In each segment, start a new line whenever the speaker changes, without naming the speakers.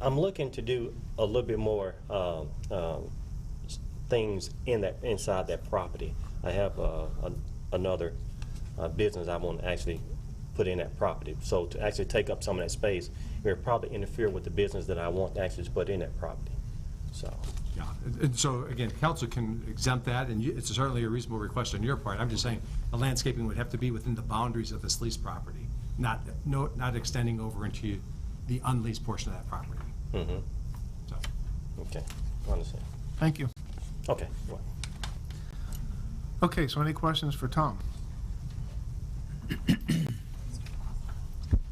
I'm looking to do a little bit more um, um, s- things in that inside that property. I have uh, an- another uh, business I want to actually put in that property. So to actually take up some of that space, it would probably interfere with the business that I want to actually put in that property. So,
Yeah, and- and so again, council can exempt that, and you- it's certainly a reasonable request on your part. I'm just saying, the landscaping would have to be within the boundaries of this leased property, not, no, not extending over into the unleased portion of that property. So,
okay, I understand.
Thank you.
Okay, well,
Okay, so any questions for Tom?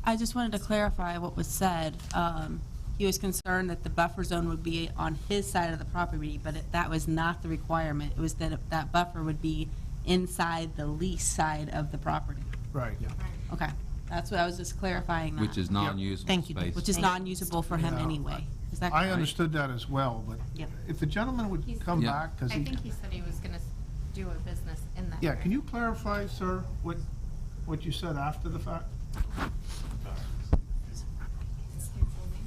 I just wanted to clarify what was said. Um, He was concerned that the buffer zone would be on his side of the property, but it- that was not the requirement. It was that it- that buffer would be inside the lease side of the property.
Right.
Okay, that's what I was just clarifying that.
Which is non-usable
Thank you.
space.
Which is non-usable for him
Yeah.
anyway. Is that
I
correct?
understood that as well, but
Yep.
if the gentleman would
He's-
come
Yeah.
back, because
I
he,
think he said he was gonna s- do a business in that.
yeah, can
area.
you clarify, sir, what, what you said after the fact?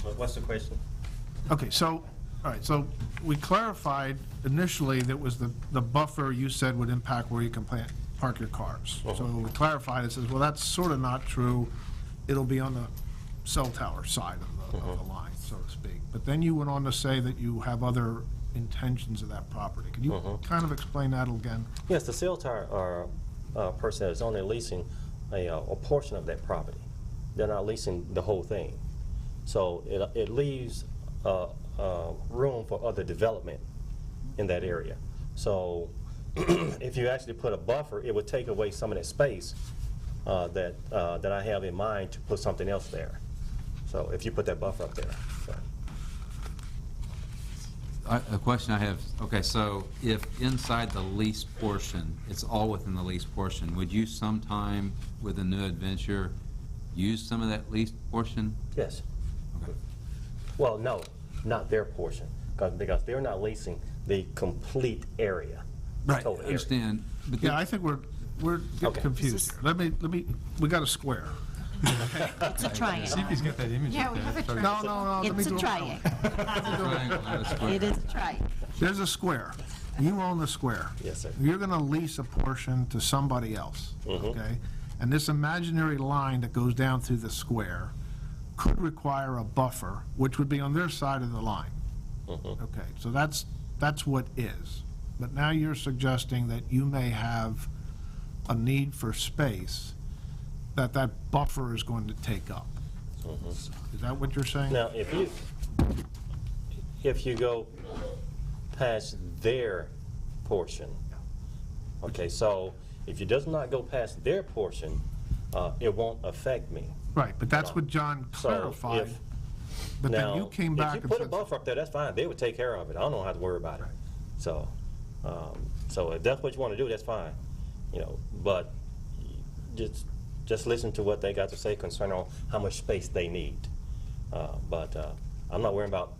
What- what's the question?
Okay, so, all right, so we clarified initially that was the, the buffer you said would impact where you can plant, park your cars. So we clarified, it says, well, that's sort of not true. It'll be on the cell tower side of the, of the line, so to speak. But then you went on to say that you have other intentions of that property. Can you kind of explain that again?
Yes, the sales tire uh, uh, person is only leasing a, uh, a portion of that property. They're not leasing the whole thing. So it, it leaves uh, uh, room for other development in that area. So if you actually put a buffer, it would take away some of that space uh, that, uh, that I have in mind to put something else there. So if you put that buffer up there, so.
I- A question I have, okay, so if inside the lease portion, it's all within the lease portion, would you sometime with a new adventure use some of that leased portion?
Yes. Well, no, not their portion, 'cause- because they're not leasing the complete area.
Right,
total
I
area.
Understand, but
Yeah,
the-
I think we're, we're getting
Okay.
confused here. Let me, let me, we got a square.
It's a triangle.
see if he's got that image.
Yeah,
up
we
there.
have a
Sorry.
triangle.
No, no, no. let me
It's
do
a
it.
triangle.
triangle, not a square.
It is a triangle.
There's a square. You own the square.
Yes, sir. Mm-hmm.
You're going to lease a portion to somebody else, okay? And this imaginary line that goes down through the square could require a buffer, which would be on their side of the line.
Mm-hmm.
Okay, so that's, that's what is. But now you're suggesting that you may have a need for space that that buffer is going to take up.
Mm-hmm.
Is that what you're saying?
Now, if you, if you go past their portion, okay, so if you does not go past their portion, uh, it won't affect me.
Right, but that's what John
So if-
clarified. But then you
Now,
came back
If
and
you
said...
put a buffer up there, that's fine, they would take care of it, I don't have to worry about it. So, um, so if that's what you want to do, that's fine, you know, but just, just listen to what they got to say concerning on how much space they need. Uh, But uh, I'm not worrying about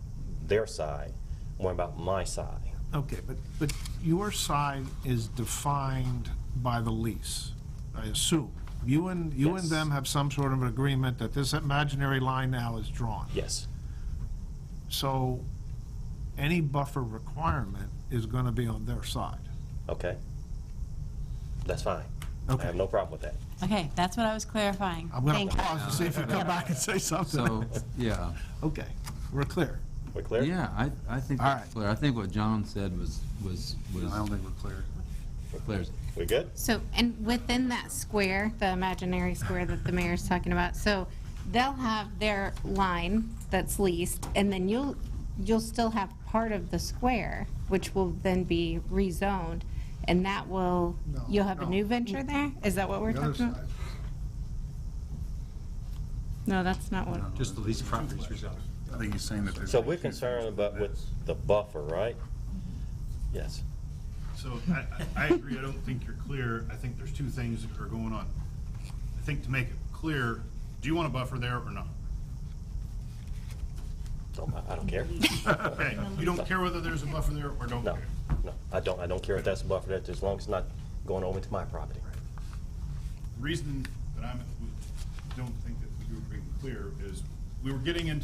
their side, I'm worrying about my side.
Okay, but, but your side is defined by the lease, I assume. You and, you and
Yes.
them have some sort of an agreement that this imaginary line now is drawn.
Yes,
So any buffer requirement is going to be on their side.
okay? That's fine. I
Okay.
have no problem with that.
Okay, that's what I was clarifying.
I'm going
Thank
to
you.
pause to see if you come back and say
so,
something.
yeah,
Okay, we're clear.
We clear?
yeah, I, I think
All
that's
right.
clear. I think what John said was, was, was. I don't think we're clear. Clear.
We good?
So, and within that square, the imaginary square that the mayor's talking about, so they'll have their line that's leased, and then you'll, you'll still have part of the square, which will then be rezoned, and that will, you'll have a new venture there? Is that what we're
The other
talking about?
side.
No, that's not what,
Just the leased properties resolved.
I think he's saying that there's.
So we're concerned about with the buffer, right? Yes.
So I, I I agree, I don't think you're clear, I think there's two things that are going on. I think to make it clear, do you want a buffer there or not?
Don't- I- I don't care.
Okay, you don't care whether there's a buffer there or don't
No,
care?
no, I don't, I don't care if that's a buffer, that's as long as it's not going over into my property.
The Reason that I'm, don't think that you're being clear is, we were getting into